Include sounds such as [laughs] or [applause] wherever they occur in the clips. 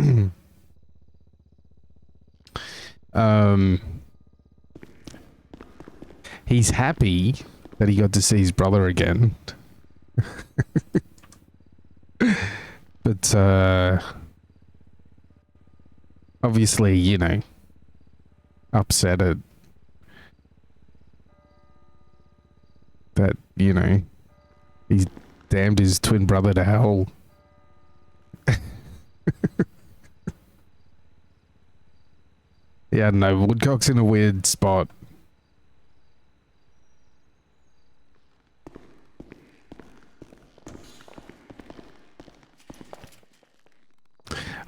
[clears throat] Um, he's happy that he got to see his brother again. [laughs] but uh, obviously, you know, upset at that, you know, he's damned his twin brother to hell. yeah, I don't know. Woodcock's in a weird spot.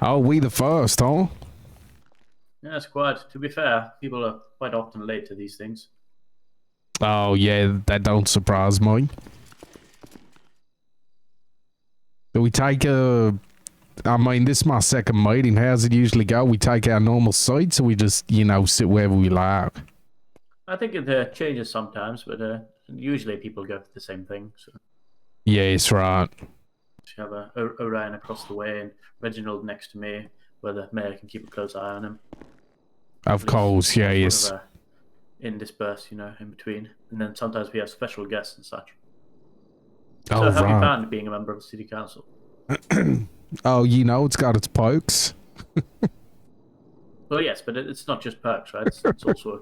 Oh, we the first, huh? Yes, quite. To be fair, people are quite often late to these things. Oh yeah, that don't surprise me. Do we take a? I mean, this is my second meeting. How's it usually go? We take our normal seats, or we just you know sit wherever we like. I think it uh, changes sometimes, but uh, usually people go for the same thing. So Yes, right. you have uh, O- Orion across the way and Reginald next to me, where the mayor can keep a close eye on him. Of course, yeah, [laughs] yes. Sort of, uh, in disperse, you know, in between, and then sometimes we have special guests and such. Oh, so, have you right. found being a member of the city council? Oh, you know, it's got its pokes. Well, yes, but it- it's not just perks, right? It's, it's also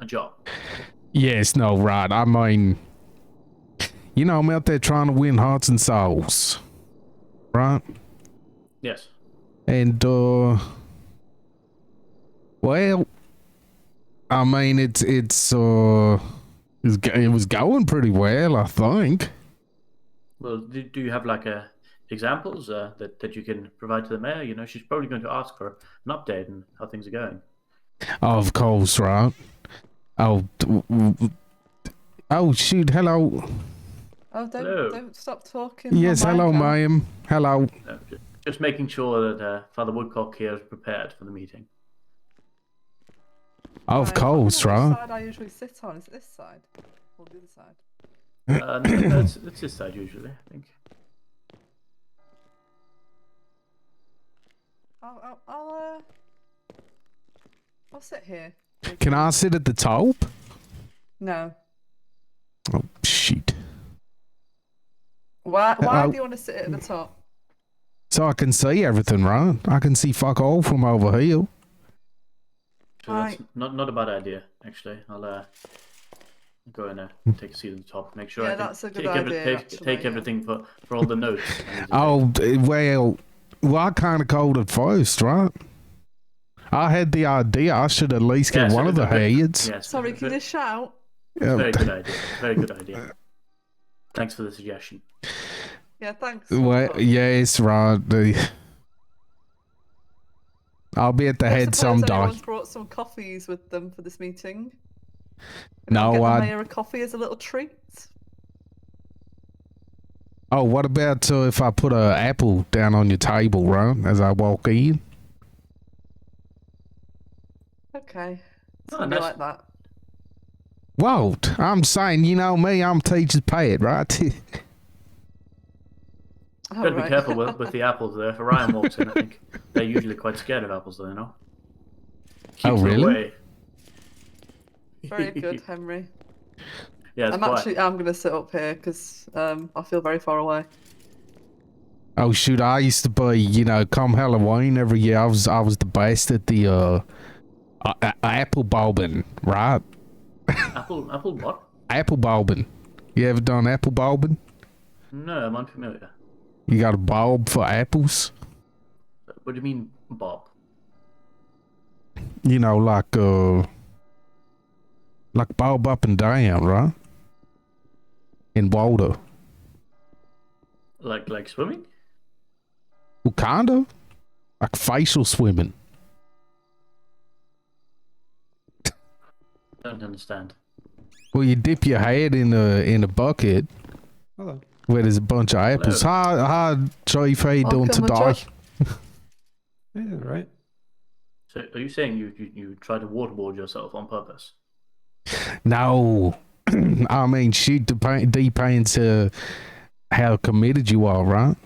a job. Yes, no, right. I mean, you know, I'm out there trying to win hearts and souls, right? Yes. And uh well I mean it's it's uh it's go- it was going pretty well, I think. Well, do, do you have like uh examples uh, that that you can provide to the mayor? You know, she's probably going to ask for an update and how things are going. Of course, right? Oh, d- w- w- oh shoot! Hello. Oh, don't Hello. don't stop talking. my Yes, hello, mic on. ma'am. Hello. Uh, ju- just making sure that uh, Father Woodcock here is prepared for [coughs] the meeting. Of Right, I wonder course, which right? side I usually sit on is it this side or the other side? Uh, no, no, it's, it's this side usually, I think. I'll I'll, I'll, uh, I'll sit here. Can I sit at the top? No. Oh shoot! Why why I'll- do you want to sit at the top? So I can see everything, right? I can see fuck all from over here. So that's Right. not not a bad idea actually. I'll uh, go and uh, Hmm. take a seat at the top. Make sure Yeah, I can that's a good take, every- idea, take, actually, take yeah. everything for, for all the notes. [laughs] Oh, d- well, well, I kind of called it first, right? I had the idea I should at least get Yes, one of the it was a- heads. Yes, Sorry, ve- can ve- you shout? Um, [laughs] Very good idea. Very good idea. Thanks for the suggestion. Yeah, thanks. well, Woodcock. yes, right. the- I'll be at the Don't head suppose someday. anyone's brought some coffees with them for this meeting. Can No, I get I- the mayor a coffee as a little treat. Oh, what about uh, if I put a apple down on your table, right, as I walk in? Okay. Oh, Something nice. like that. Won't. I'm saying, you know me, I'm teacher's pet, right? [laughs] Oh, Gotta be right. [laughs] careful with, with the apples there. If Orion walks in, I think they're usually quite scared of apples, though, you know? Keeps Oh, them really? away. [laughs] Very good, Henry. yeah, it's I'm quite. actually I'm gonna sit up here because um, I feel very far away. Oh shoot! I used to be, you know, come Halloween every year. I was, I was the best at the uh, a- a- apple bobbing, right? Apple, apple what? Apple bobbing. You ever done apple bobbing? No, I'm unfamiliar. You got a bulb for apples? What do you mean, Bob? You know, like uh, like bulb up and down, right? In water. Like, like swimming? Well, kinda. Like facial swimming. Don't understand. Well, you dip your head in a in a bucket Hello. where there's a bunch of apples. Hi, hi, Chief. How you doing Welcome, today? Jack. Yeah, right. So, are you saying you, you, you try to waterboard yourself on purpose? No, [clears throat] I mean, shoot, dep- depends uh, how committed you are, right?